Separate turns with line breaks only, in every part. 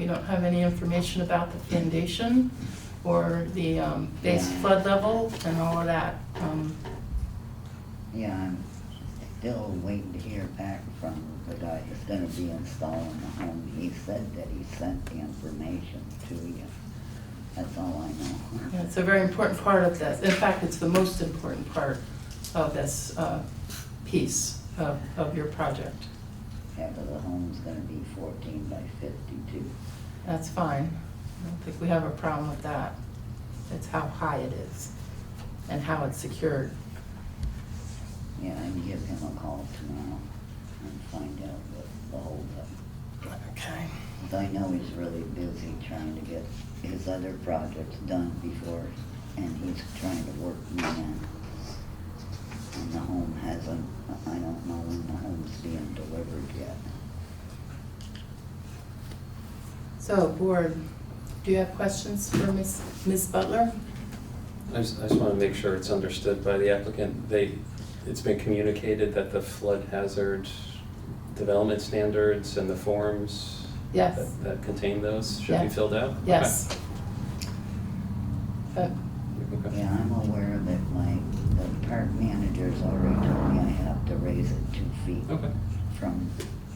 you don't have any information about the foundation or the um, base flood level and all of that. Um,
Yeah, I'm still waiting to hear back from the guy that's gonna be installing the home. He said that he sent the information to you. That's all I know.
yeah, It's a very important part of this. In fact, it's the most important part of this uh, piece of of your project.
Yeah, but the home's gonna be fourteen by fifty-two.
That's fine. I don't think we have a problem with that. It's how high it is and how it's secured.
Yeah, I can give him a call tomorrow and find out what the holdup.
Okay.
'Cause I know he's really busy trying to get his other projects done before, and he's trying to work me in. And the home hasn't, I don't know when the home's being delivered yet.
So, board, do you have questions for Ms. Ms. Butler?
I just, I just want to make sure it's understood by the applicant. They, it's been communicated that the flood hazard development standards and the forms
Yes.
that- that contain those should
Yeah.
be filled out? Okay.
Yes. Uh, But,
Okay.
Yeah, I'm aware of it, my, the park manager's already told me I have to raise it two feet
Okay.
from,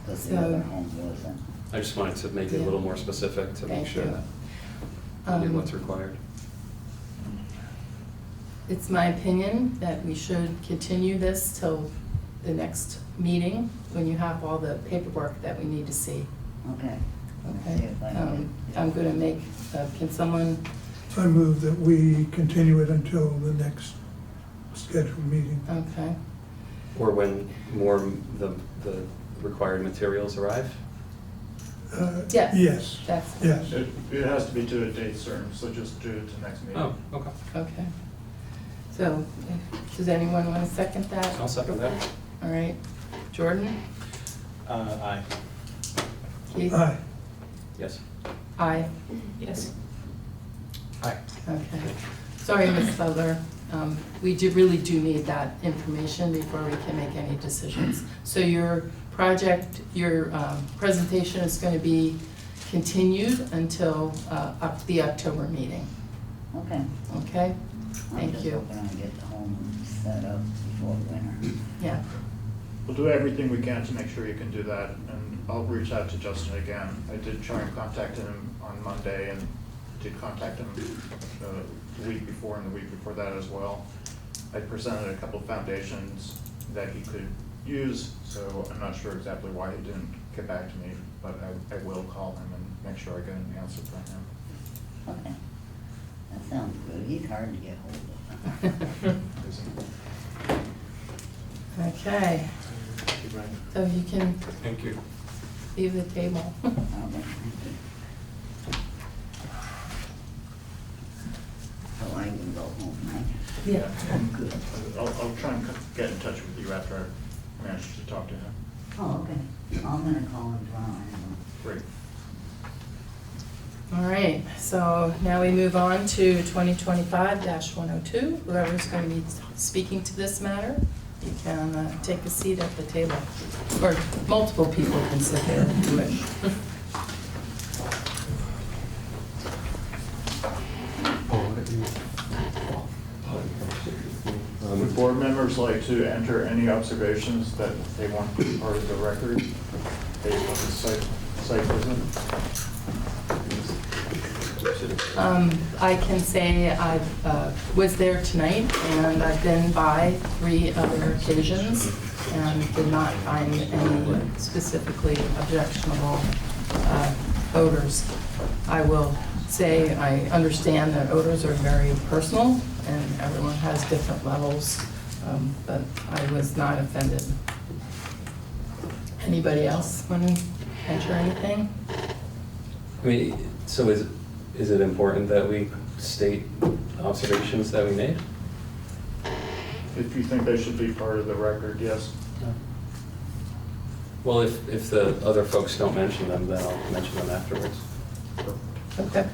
because the
So-
other home wasn't.
I just wanted to make it a little more specific to
Thank
make sure
you.
that we
um,
did what's required.
It's my opinion that we should continue this till the next meeting, when you have all the paperwork that we need to see.
Okay. Let's see
Okay?
if I
Um,
can-
I'm gonna make, uh, can someone,
I move that we continue it until the next scheduled meeting.
okay,
Or when more, m- the, the required materials arrive?
Uh,
Yes.
Yes,
that's,
yes.
It, it has to be to a date certain, so just do it to next meeting.
Oh, okay.
okay. So, does anyone wanna second that?
I'll second that.
All right, Jordan?
Uh, aye.
Keith?
Aye,
Yes.
Aye.
Yes. Aye.
Okay. Sorry, Ms. Butler. Um, We do, really do need that information before we can make any decisions. So your project, your um, presentation is going to be continued until uh, up the October meeting,
Okay.
okay?
I'm
oh. Thank
just
you.
hoping I get the home set up before winter.
Yeah,
We'll do everything we can to make sure you can do that, and I'll reach out to Justin again. I did try and contact him on Monday and did contact him uh, the week before and the week before that as well. I presented a couple of foundations that he could use, so I'm not sure exactly why he didn't get back to me, but I, I will call him and make sure I get an answer from him.
Okay. That sounds good. He's hard to get hold of.
okay. So you can
Thank you.
leave the table.
I'll make him. So Oh, I can go home, right?
Yeah.
I'm good.
I'll, I'll try and c- get in touch with you after I manage to talk to him.
Oh, okay. I'm gonna call him tomorrow. anyway.
Great.
All right, so now we move on to 2025-102. Whoever's going to be speaking to this matter, you can uh, take a seat at the table, or multiple people can sit there if you wish.
Would board members like to enter any observations that they want to be part of the record based on the site, site visit?
Um, I can say I uh, was there tonight, and I've been by three other occasions, and did not find any specifically objectionable uh, odors. I will say, I understand that odors are very personal, and everyone has different levels, um, but I was not offended. Anybody else want to enter anything?
I mean, so is, is it important that we state observations that we made?
If you think they should be part of the record, yes.
Well, if, if the other folks don't mention them, then I'll mention them afterwards.
Okay.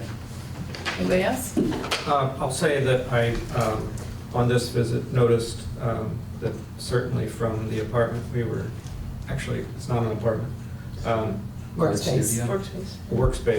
Anybody else?
Uh, I'll say that I, um, on this visit, noticed um, that certainly from the apartment, we were, actually, it's not an apartment, um,
Or a
Workspace.
studio.
workspace